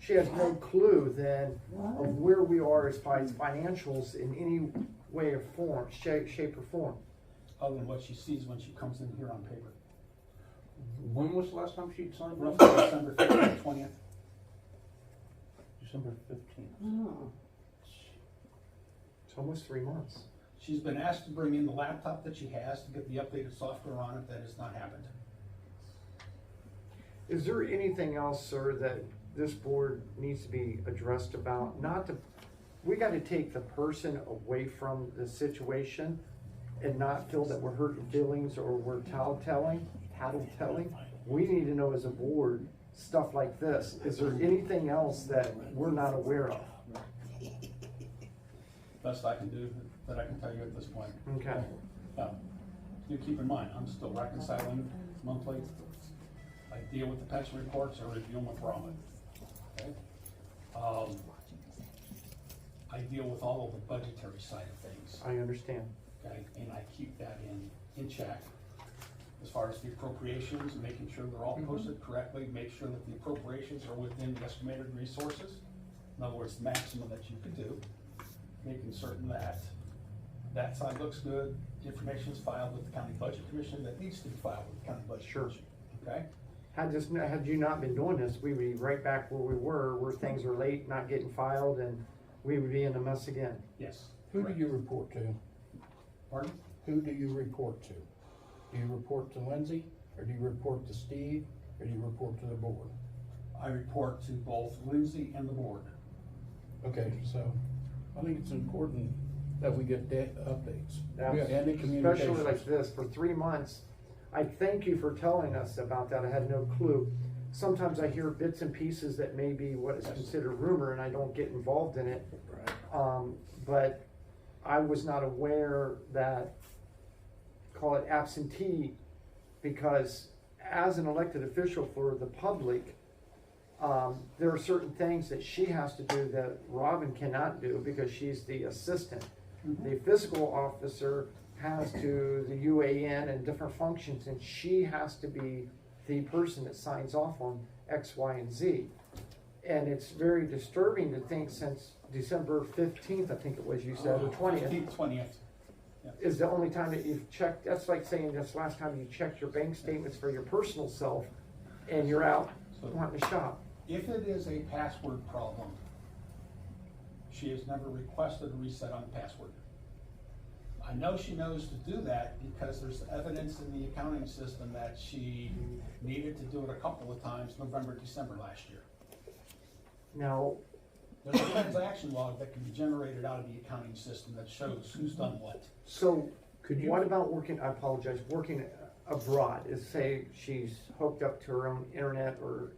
she has no clue then of where we are as far as financials in any way or form, shape, shape or form. other than what she sees when she comes in here on paper. When was the last time she signed Roughly December fifteenth, twentieth, December fifteenth. Oh, It's almost three months. she's been asked to bring in the laptop that she has to get the updated software on it, that has not happened. Is there anything else, sir, that this board needs to be addressed about? Not to, we gotta take the person away from the situation and not feel that we're hurting feelings or we're tattletelling, tattletelling. We need to know as a board, stuff like this. Is there anything else that we're not aware of? Best I can do, that I can tell you at this point. Okay. Um, Do keep in mind, I'm still reconciling monthly. I deal with the pension reports, I review them with Robin. okay? Um, I deal with all of the budgetary side of things. I understand. okay, and I keep that in, in check. As far as the appropriations, making sure they're Mm-hmm. all posted correctly, make sure that the appropriations are within the estimated resources. In other words, maximum that you could do, making certain that that side looks good, information is filed with the county budget commission that needs to be filed with the county budget Sure. commission, okay? Had this, had you not been doing this, we would be right back where we were, where things are late, not getting filed, and we would be in a mess again. Yes. Who do correct. you report to? Pardon? Who do you report to? Do you report to Lindsay, or do you report to Steve, or do you report to the board? I report to both Lindsay and the board. Okay, so I think it's important that we get da- updates. Now, And the Especially like communications. this, for three months, I thank you for telling us about that, I had no clue. Sometimes I hear bits and pieces that may be what is considered rumor, and I don't get involved in it. Right. Um, but I was not aware that, call it absentee, because as an elected official for the public, um, there are certain things that she has to do that Robin cannot do because she's the assistant. The fiscal officer has to, the UAN and different functions, and she has to be the person that signs off on X, Y, and Z. And it's very disturbing to think since December fifteenth, I think it was, you said, or twentieth, Uh, Twentieth. is the only time that you've checked, that's like saying this last time you checked your bank statements for your personal self, and you're out wanting to shop. If it is a password problem, she has never requested a reset on the password. I know she knows to do that because there's evidence in the accounting system that she needed to do it a couple of times, November, December last year. Now, There's a transaction log that can be generated out of the accounting system that shows who's done what. So, Could you- what about working, I apologize, working abroad, is say she's hooked up to her own internet or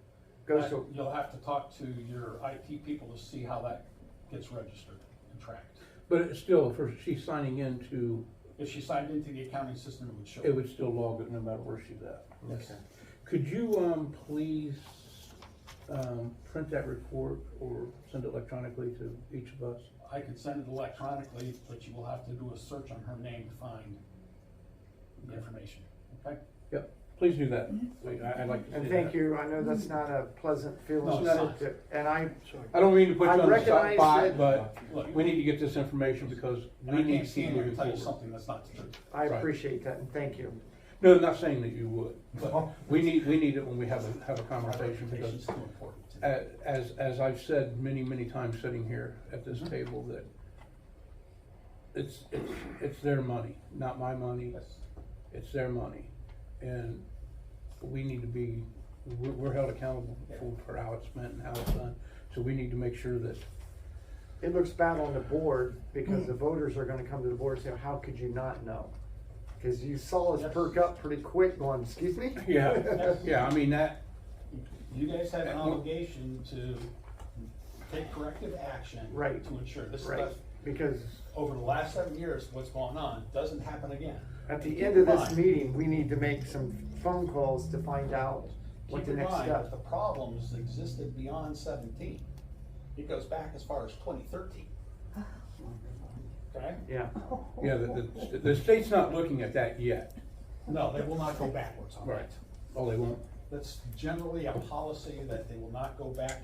goes That- to, You'll have to talk to your IT people to see how that gets registered and tracked. But it's still, if her- she's signing in to, If she signed into the accounting system, it would show. it would still log it no matter where she's at. Yes. Could you, um, please, um, print that report or send it electronically to each of us? I could send it electronically, but you will have to do a search on her name to find the information, okay? Yep, please do that. Wait, I, I'd like to Mm-hmm. see and that. thank you, I know that's not a pleasant feeling. No, it's to- And I, I don't mean to put I you on the recognize spot, that- but Look, we need to get this information because and I we need can't to see stand here moving and tell you forward. something that's not true. I Right. appreciate that and thank you. No, I'm not saying that you would, but Well- we need, we need it when we have a, have a conversation Reputation's because too important to me. a- as, as I've said many, many times sitting here at this Mm-hmm. table that it's, it's, it's their money, not my money. Yes. It's their money. And we need to be, we're, we're held accountable for, for how it's spent and how it's done. So we need to make sure that It looks bad on the board because the voters are gonna come to the board and say, how could you not know? Cause you saw us Yes. perk up pretty quick going, excuse me? Yeah, yeah, I mean, that, You guys have an Uh, obligation to take corrective action. Right. To ensure this Right, stuff, because over the last seven years, what's gone on, doesn't happen again. at Keep the end of in this mind- meeting, we need to make some phone calls to find out what Keep the in next mind that step. the problems existed beyond seventeen. It goes back as far as twenty thirteen. Okay? Yeah, yeah, the, the, the state's not looking at that yet. No, they will not go backwards on that. Oh, they won't? That's generally a policy that they will not go back